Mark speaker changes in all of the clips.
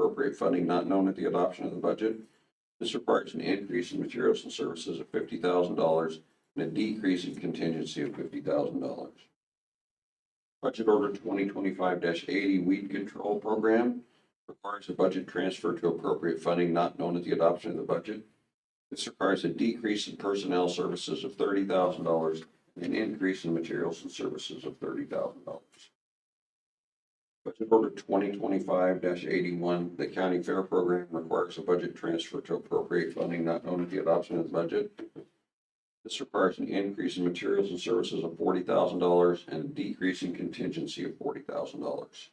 Speaker 1: appropriate funding not known at the adoption of the budget. This requires an increase in materials and services of fifty thousand dollars and a decrease in contingency of fifty thousand dollars. Budget Order twenty twenty-five eighty Weed Control Program requires a budget transfer to appropriate funding not known at the adoption of the budget. This requires a decrease in personnel services of thirty thousand dollars and an increase in materials and services of thirty thousand dollars. Budget Order twenty twenty-five eighty-one, the County Fair Program requires a budget transfer to appropriate funding not known at the adoption of the budget. This requires an increase in materials and services of forty thousand dollars and a decrease in contingency of forty thousand dollars.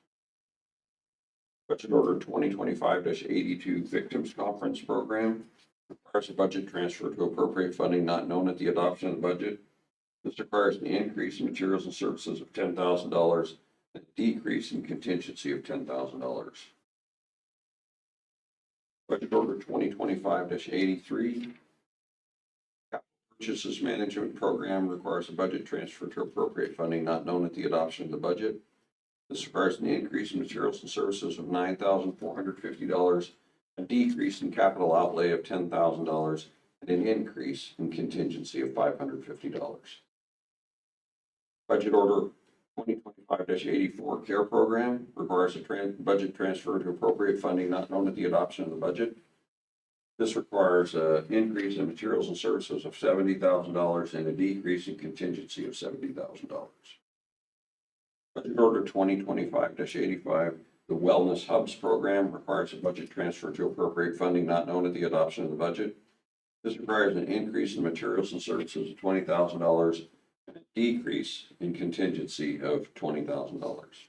Speaker 1: Budget Order twenty twenty-five eighty-two Victims Conference Program requires a budget transfer to appropriate funding not known at the adoption of the budget. This requires an increase in materials and services of ten thousand dollars, and a decrease in contingency of ten thousand dollars. Budget Order twenty twenty-five eighty-three Purchases Management Program requires a budget transfer to appropriate funding not known at the adoption of the budget. This requires an increase in materials and services of nine thousand four hundred fifty dollars, a decrease in capital outlay of ten thousand dollars, and an increase in contingency of five hundred fifty dollars. Budget Order twenty twenty-five eighty-four Care Program requires a tran- budget transfer to appropriate funding not known at the adoption of the budget. This requires an increase in materials and services of seventy thousand dollars and a decrease in contingency of seventy thousand dollars. Budget Order twenty twenty-five eighty-five, the Wellness Hubs Program requires a budget transfer to appropriate funding not known at the adoption of the budget. This requires an increase in materials and services of twenty thousand dollars and a decrease in contingency of twenty thousand dollars.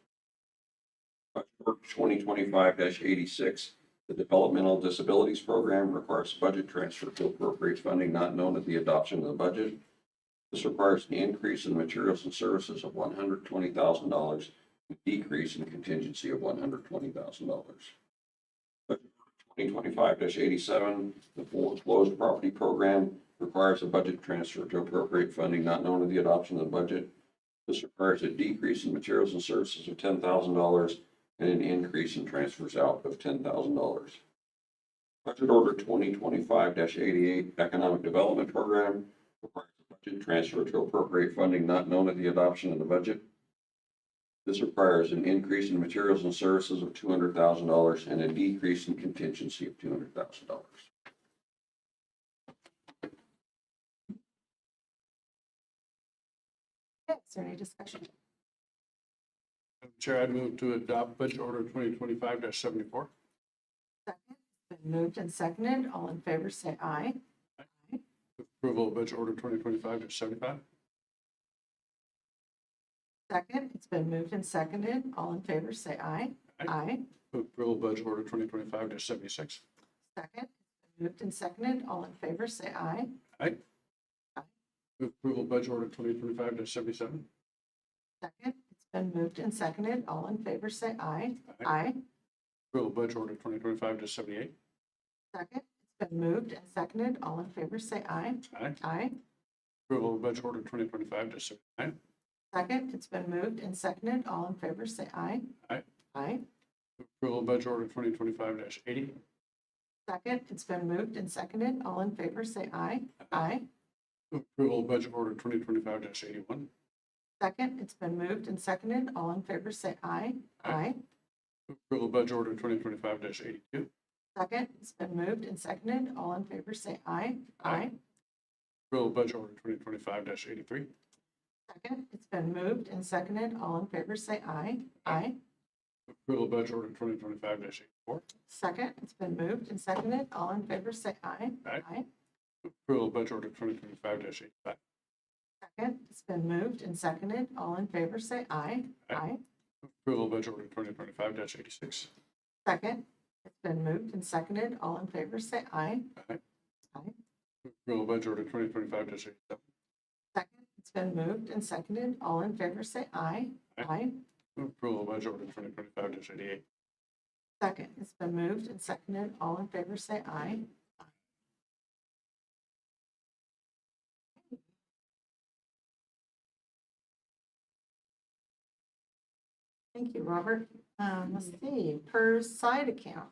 Speaker 1: Budget Order twenty twenty-five eighty-six, the Developmental Disabilities Program requires budget transfer to appropriate funding not known at the adoption of the budget. This requires an increase in materials and services of one hundred twenty thousand dollars, a decrease in contingency of one hundred twenty thousand dollars. Twenty twenty-five eighty-seven, the foreclosed property program requires a budget transfer to appropriate funding not known at the adoption of the budget. This requires a decrease in materials and services of ten thousand dollars and an increase in transfers out of ten thousand dollars. Budget Order twenty twenty-five eighty-eight Economic Development Program requires a budget transfer to appropriate funding not known at the adoption of the budget. This requires an increase in materials and services of two hundred thousand dollars and a decrease in contingency of two hundred thousand dollars.
Speaker 2: Okay, Is there any discussion?
Speaker 3: Madam Chair, I'd move to adopt Budget Order twenty twenty-five seventy-four.
Speaker 2: Second, It's Been moved and seconded. All in favor, say aye.
Speaker 3: Approval of Budget Order twenty twenty-five seventy-five.
Speaker 2: Second, it's been moved and seconded. All in favor, say aye.
Speaker 3: Aye.
Speaker 2: Aye.
Speaker 3: Approval of Budget Order twenty twenty-five seventy-six.
Speaker 2: Second, it's been moved and seconded. All in favor, say aye.
Speaker 3: Approval of Budget Order twenty twenty-five seventy-seven.
Speaker 2: Second, it's been moved and seconded. All in favor, say aye.
Speaker 3: Aye.
Speaker 2: Aye.
Speaker 3: Approval of Budget Order twenty twenty-five seventy-eight.
Speaker 2: Second, it's been moved and seconded. All in favor, say aye.
Speaker 3: Aye.
Speaker 2: Aye.
Speaker 3: Approval of Budget Order twenty twenty-five seventy-nine.
Speaker 2: Second, it's been moved and seconded. All in favor, say aye.
Speaker 3: Aye.
Speaker 2: Aye.
Speaker 3: Approval of Budget Order twenty twenty-five eighty.
Speaker 2: Second, it's been moved and seconded. All in favor, say aye. Aye.
Speaker 3: Approval of Budget Order twenty twenty-five eighty-one.
Speaker 2: Second, it's been moved and seconded. All in favor, say aye.
Speaker 3: Aye.
Speaker 2: Aye.
Speaker 3: Approval of Budget Order twenty twenty-five eighty-two.
Speaker 2: Second, it's been moved and seconded. All in favor, say aye.
Speaker 3: Aye. Approval of Budget Order twenty twenty-five eighty-three.
Speaker 2: Second, it's been moved and seconded. All in favor, say aye. Aye.
Speaker 3: Approval of Budget Order twenty twenty-five eighty-four.
Speaker 2: Second, it's been moved and seconded. All in favor, say aye.
Speaker 3: Aye. Approval of Budget Order twenty twenty-five eighty-five.
Speaker 2: Second, it's been moved and seconded. All in favor, say aye.
Speaker 3: Aye. Approval of Budget Order twenty twenty-five eighty-six.
Speaker 2: Second, it's been moved and seconded. All in favor, say aye.
Speaker 3: Approval of Budget Order twenty twenty-five eighty-seven.
Speaker 2: Second, it's been moved and seconded. All in favor, say aye.
Speaker 3: Aye.
Speaker 2: Aye.
Speaker 3: Approval of Budget Order twenty twenty-five eighty-eight.
Speaker 2: Second, it's been moved and seconded. All in favor, say aye. Thank you, Robert. Um, let's see, per side account.